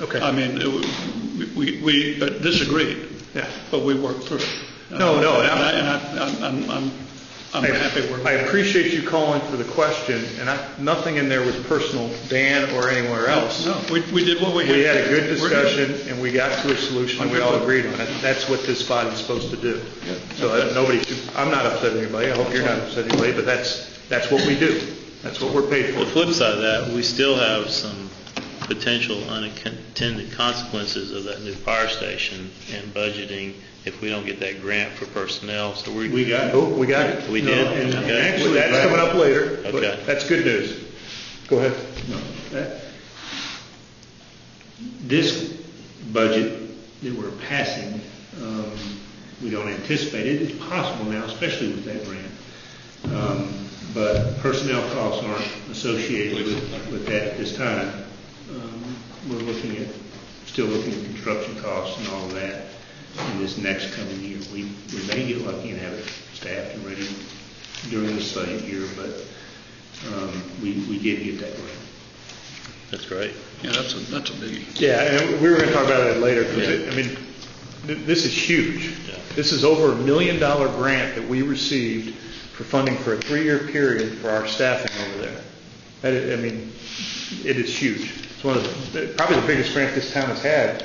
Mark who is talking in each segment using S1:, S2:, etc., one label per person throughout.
S1: Okay.
S2: I mean, it w- we, we uh, disagreed,
S1: Yeah.
S2: but we worked through it.
S1: No, no,
S2: And
S1: and I'm-
S2: I, and I- I'm, I'm, I'm, I'm
S1: I-
S2: happy where
S1: I
S2: we're at.
S1: appreciate you calling for the question, and I, nothing in there was personal, Dan or anywhere else.
S2: No, we, we did what we had.
S1: We had a good
S2: We're-
S1: discussion, and we got to a solution, and we all agreed on it. That's what this body's supposed to do. So uh, nobody should, I'm not upset at anybody, I hope you're not upset at anybody, but that's, that's what we do. That's what we're paid
S3: The
S1: for.
S3: flip side of that, we still have some potential unintended consequences of that new fire station and budgeting if we don't get that grant for personnel, so we. We got
S1: Oh, we got it?
S3: We did?
S1: No, and- and
S3: Okay.
S1: Actually, that's coming up later,
S3: Okay.
S1: but that's good news. Go ahead.
S4: This budget that we're passing, um, we don't anticipate it, it's possible now, especially with that grant. Um, But personnel costs aren't associated with, with that at this time. Um, We're looking at, still looking at construction costs and all of that in this next coming year. We, we may get lucky and have it staffed and ready during this budget year, but um, we, we did get that grant.
S3: That's great.
S2: Yeah, that's a, that's a biggie.
S1: Yeah, and we were going to talk about that later, because, I mean, th- this is huge.
S3: Yeah.
S1: This is over a million-dollar grant that we received for funding for a three-year period for our staffing over there. That is, I mean, it is huge. It's one of, the probably the biggest grant this town has had,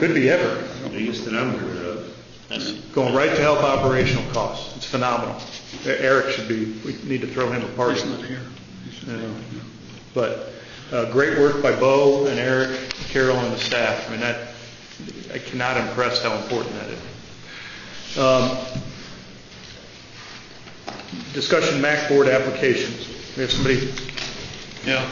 S1: could be ever,
S4: Biggest that I'm aware of.
S3: That's,
S1: going right to help operational costs. It's phenomenal. E- Eric should be, we need to throw him a party.
S2: He's not here.
S1: you know. But uh, great work by Bo and Eric, Carol, and the staff. I mean, that, I cannot impress how important that is. Um, Discussion MAC board applications. We have somebody,
S2: Yeah.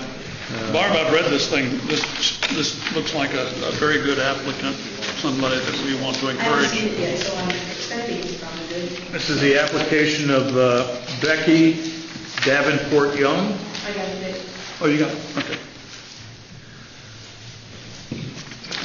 S2: Uh, Barb, I've read this thing, this, this looks like a, a very good applicant, somebody that we want to
S5: I haven't seen
S2: encourage.
S5: it yet, so I'm expecting it's probably good.
S1: this is the application of uh, Becky Davenport Young.
S5: I got it.
S1: Oh, you got, it. okay.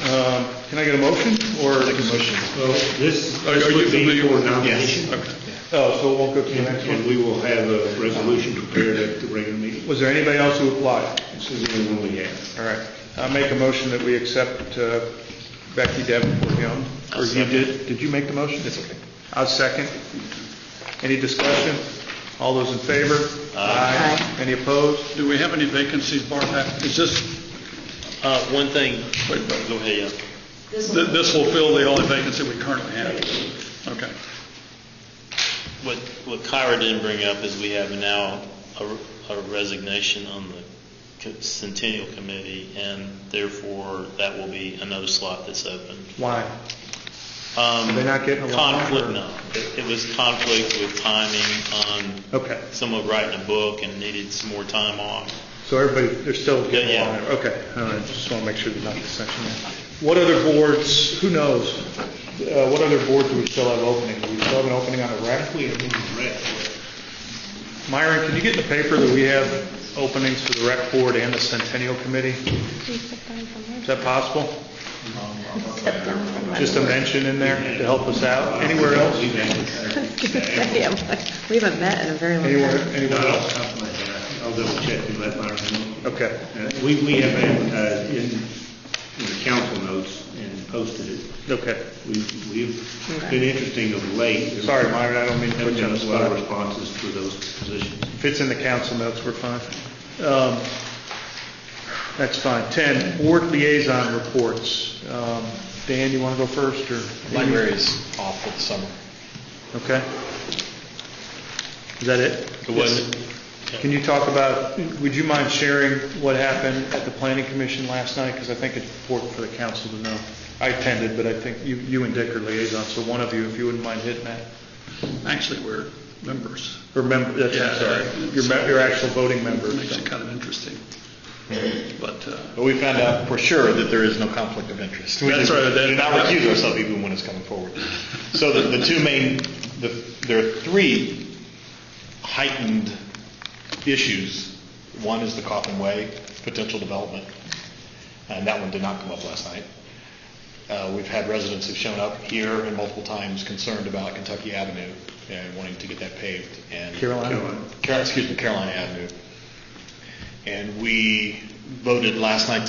S1: Um, Can I get a motion, or? motion.
S4: Well, this,
S2: Are are
S4: this
S2: you
S4: would be
S2: familiar
S4: for
S2: with
S4: nomination,
S2: Okay.
S1: Oh, so it won't go to the
S4: and
S1: next
S4: and
S1: one.
S4: we will have a resolution prepared at the regular meeting.
S1: Was there anybody else who applied?
S4: This is the only one we have.
S1: All right, I make a motion that we accept uh, Becky Davenport Young. Or you did, did you make the motion? It's okay. I'll second. Any discussion? All those in favor? Aye. Any opposed?
S2: Do we have any vacancies, Barb? Is this,
S3: uh, one thing,
S2: wait, but
S3: go ahead, yeah.
S5: This
S2: th-
S5: one,
S2: this will fill the only vacancy we currently have? Okay.
S3: What, what Kyra didn't bring up is we have now a- a resignation on the co- Centennial Committee, and therefore, that will be another slot that's open.
S1: Why?
S3: Um,
S1: They're not getting along,
S3: Conflict,
S1: or-
S3: no. It- It was conflict with timing on
S1: Okay,
S3: someone writing a book and needed some more time off.
S1: so everybody, they're still getting
S3: Yeah,
S1: along.
S3: yeah.
S1: there. Okay, all right, just want to make sure there's not dissension there. What other boards, who knows? Uh, What other boards do we still have opening? Do we still have an opening on a rec?
S4: We have one rec.
S1: Myron, can you get in the paper that we have openings for the rec board and the Centennial Committee? Is that possible? Just a mention in there to help us out. Anywhere else?
S4: We've advertised.
S6: Yeah, We haven't met in a very long
S1: Anywhere,
S6: time.
S1: anywhere
S4: Not
S1: else?
S4: off the top of my head. I'll double check and let Myron know.
S1: Okay.
S4: Uh, We, we have advertised in, in the council notes and posted it.
S1: Okay.
S4: We've, we've been interesting of late.
S1: Sorry, Myron, I don't mean to put
S4: Haven't
S1: you on
S4: done
S1: the
S4: a lot of
S1: spot.
S4: responses for those positions.
S1: If it's in the council notes, we're fine. Um, That's fine. 10, board liaison reports. Um, Dan, you want to go first, or?
S7: Library is off for the summer.
S1: Okay. Is that it?
S3: It wasn't,
S1: Can you talk about, would you mind sharing what happened at the planning commission last night? Because I think it's important for the council to know. I attended, but I think you, you and Dick are liaisons, so one of you, if you wouldn't mind hitting that.
S2: Actually, we're members.
S1: Remember, that's, I'm
S2: Yeah,
S1: sorry,
S2: yeah.
S1: your, mem- your actual voting members.
S2: Makes it kind of interesting. But, uh,
S7: But we found out for sure that there is no conflict of interest. We
S2: That's
S7: did-
S2: right, that-
S7: Did not recuse ourselves even when it's coming forward. So the, the two main, the, there are three heightened issues. One is the Coffin Way potential development, and that one did not come up last night. Uh, We've had residents who've shown up here and multiple times concerned about Kentucky Avenue and wanting to get that paved, and.
S1: Carolina?
S7: Carol- excuse me, Carolina Avenue. And we voted last night